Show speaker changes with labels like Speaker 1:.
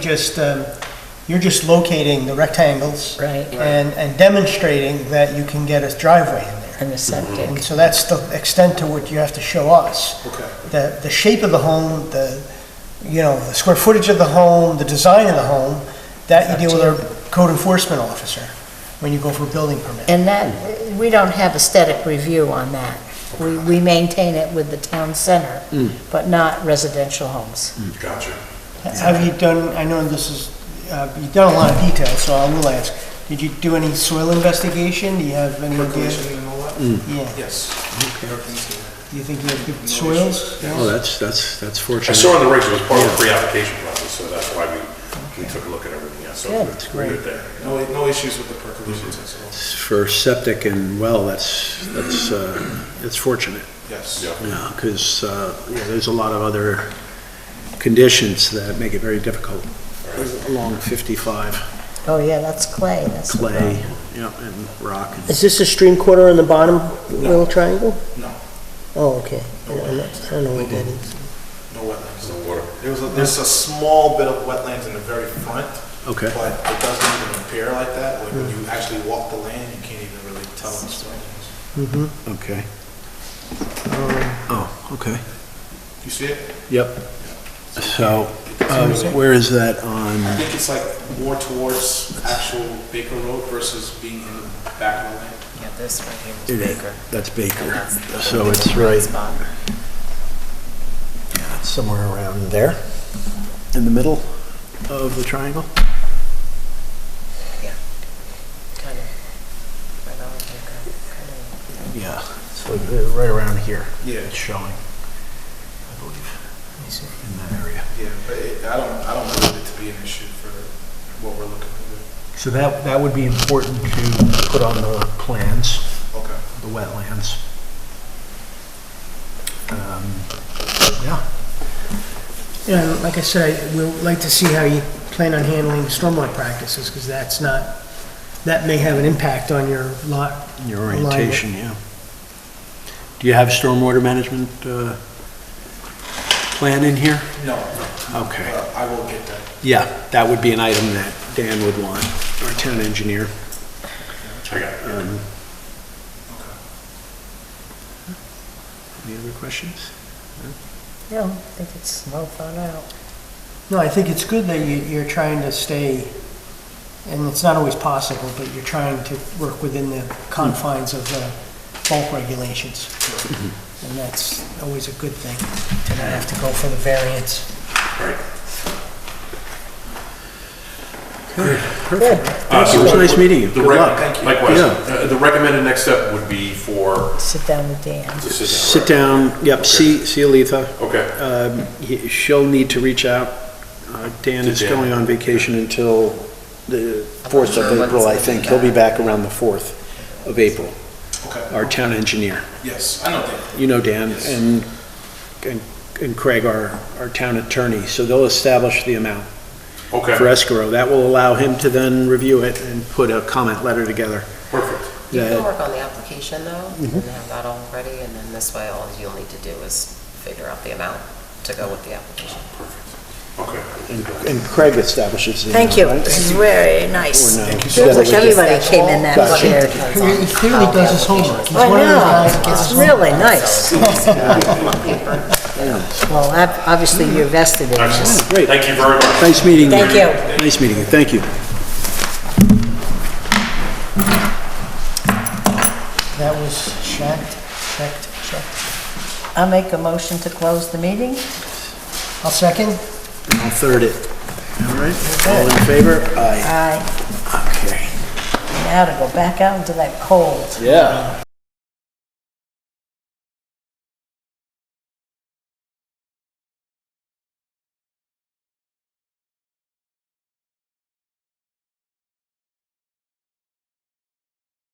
Speaker 1: just, um, you're just locating the rectangles.
Speaker 2: Right. Right.
Speaker 1: And, and demonstrating that you can get a driveway in there.
Speaker 2: and the
Speaker 1: And
Speaker 2: septic.
Speaker 1: so that's the extent to which you have to show us.
Speaker 3: Okay.
Speaker 1: The, the shape of the home, the, you know, the square footage of the home, the design of the home, that you deal with our code enforcement officer when you go for a building permit.
Speaker 2: And that, we don't have aesthetic review on that. We, we maintain it with the town center, but not residential homes.
Speaker 3: Gotcha.
Speaker 1: Have you done, I know this is, uh, you've done a lot of detail, so I will ask, did you do any soil investigation? Do you have any idea?
Speaker 3: Percolation and all that?
Speaker 1: Mm. Yeah,
Speaker 3: Yes.
Speaker 1: do you think you have good soils?
Speaker 4: Oh, that's, that's, that's
Speaker 5: I
Speaker 4: fortunate.
Speaker 5: saw on the regs, it was part of the pre-application process, so that's why we, we took a look at everything, yeah, so
Speaker 3: Mm,
Speaker 2: Good.
Speaker 5: we're good there.
Speaker 3: No, no issues with the percolations at all.
Speaker 4: For septic and well, that's, that's, uh, that's fortunate,
Speaker 3: Yes.
Speaker 5: Yeah.
Speaker 4: yeah, because, uh, yeah, there's a lot of other conditions that make it very difficult. Along 55,
Speaker 2: Oh, yeah, that's clay, that's. the
Speaker 4: clay,
Speaker 2: problem.
Speaker 4: yeah, and rock. and-
Speaker 6: Is this the stream corner on the bottom little triangle?
Speaker 3: No,
Speaker 6: Oh, okay. I don't know- I don't know what that is.
Speaker 3: no wetlands.
Speaker 5: No water.
Speaker 3: There was, a- there's a small bit of wetlands in the very front.
Speaker 4: Okay.
Speaker 3: But it doesn't even appear like that. Like when you actually walk the land, you can't even really tell it's wetlands.
Speaker 4: Okay. Oh, okay,
Speaker 3: You see it?
Speaker 4: yep. So, um, where is that
Speaker 3: I
Speaker 4: on,
Speaker 3: think it's like more towards actual Baker Road versus being in the back of the land.
Speaker 7: Yeah, this right here
Speaker 4: it
Speaker 7: is
Speaker 4: is-
Speaker 7: Baker.
Speaker 4: that's
Speaker 7: And
Speaker 4: Baker,
Speaker 7: that's the
Speaker 4: so it's
Speaker 7: right
Speaker 4: right
Speaker 7: spot.
Speaker 4: somewhere around there, in the middle of the triangle?
Speaker 7: Kind of. Right on Baker. Kind of.
Speaker 4: Yeah, it's like uh, right around here.
Speaker 3: Yeah.
Speaker 4: It's showing, I believe, in that area.
Speaker 3: Yeah, but it, I don't, I don't believe it to be an issue for what we're looking for.
Speaker 4: So that, that would be important to put on the plans,
Speaker 3: Okay.
Speaker 4: the wetlands. Um, Yeah,
Speaker 1: Yeah, and like I said, we'd like to see how you plan on handling stormwater practices, because that's not, that may have an impact on your lot.
Speaker 4: your
Speaker 1: alignment.
Speaker 4: orientation, yeah. Do you have stormwater management uh, plan in here?
Speaker 3: No,
Speaker 4: Okay.
Speaker 3: but I will get that.
Speaker 4: Yeah, that would be an item that Dan would want, our town engineer.
Speaker 5: I got it.
Speaker 4: Um,
Speaker 3: Okay.
Speaker 4: Any other questions?
Speaker 2: No, I think it's well thought out.
Speaker 1: No, I think it's good that you, you're trying to stay, and it's not always possible, but you're trying to work within the confines of the bulk regulations. And that's always a good thing, to not have to go for the variance.
Speaker 5: Right.
Speaker 4: Perfect.
Speaker 5: Uh, so
Speaker 4: It was
Speaker 5: what-
Speaker 4: nice meeting you.
Speaker 5: the
Speaker 4: Good
Speaker 5: rec-
Speaker 4: luck.
Speaker 5: Likewise,
Speaker 4: Yeah.
Speaker 5: Uh, the recommended next step would be for.
Speaker 2: Sit down with Dan.
Speaker 5: to
Speaker 4: Sit down, yep, see, see Aletha.
Speaker 5: Okay,
Speaker 4: Um, he- She'll need to reach out. Uh, Dan
Speaker 5: To
Speaker 4: is
Speaker 5: Dan.
Speaker 4: going on vacation until the 4th
Speaker 7: Sure,
Speaker 4: of
Speaker 7: when
Speaker 4: April,
Speaker 7: it's
Speaker 4: I
Speaker 7: gonna be
Speaker 4: think. He'll be back around the 4th of April,
Speaker 3: Okay.
Speaker 4: our town engineer.
Speaker 3: Yes, I know that.
Speaker 4: You know Dan and, and- and Craig, our, our town attorney, so they'll establish the amount for
Speaker 5: okay,
Speaker 4: escrow. That will allow him to then review it and put a comment letter together.
Speaker 5: perfect.
Speaker 7: You
Speaker 4: that-
Speaker 7: can work on the application though, and
Speaker 4: Mm-hmm.
Speaker 7: have that all ready, and then this way, all you'll need to do is figure out the amount to go with the application.
Speaker 5: Okay.
Speaker 4: And and Craig establishes the amount,
Speaker 2: Thank you,
Speaker 4: right?
Speaker 2: this is very
Speaker 4: Or
Speaker 2: nice.
Speaker 4: no?
Speaker 2: I wish everybody
Speaker 7: That's
Speaker 2: came in
Speaker 7: all-
Speaker 2: that
Speaker 7: Well, it
Speaker 2: prepared.
Speaker 7: depends on
Speaker 1: He clearly
Speaker 7: how the
Speaker 1: does his
Speaker 7: application
Speaker 1: homework.
Speaker 7: is
Speaker 1: He's
Speaker 2: I
Speaker 1: one of those
Speaker 2: know,
Speaker 1: guys that gets
Speaker 2: it's
Speaker 1: his
Speaker 2: really
Speaker 1: homework.
Speaker 2: nice. Well, ob- obviously you're vested in this.
Speaker 4: Great.
Speaker 5: Thank you very much.
Speaker 4: Nice meeting you.
Speaker 2: Thank you.
Speaker 4: Nice meeting you, thank you.
Speaker 1: That was checked, checked, checked.
Speaker 2: I'll make a motion to close the meeting.
Speaker 1: I'll second.
Speaker 4: I'll third it. All right, all in favor? Aye.
Speaker 2: Aye.
Speaker 4: Okay.
Speaker 2: Now to go back out into that cold.
Speaker 4: Yeah.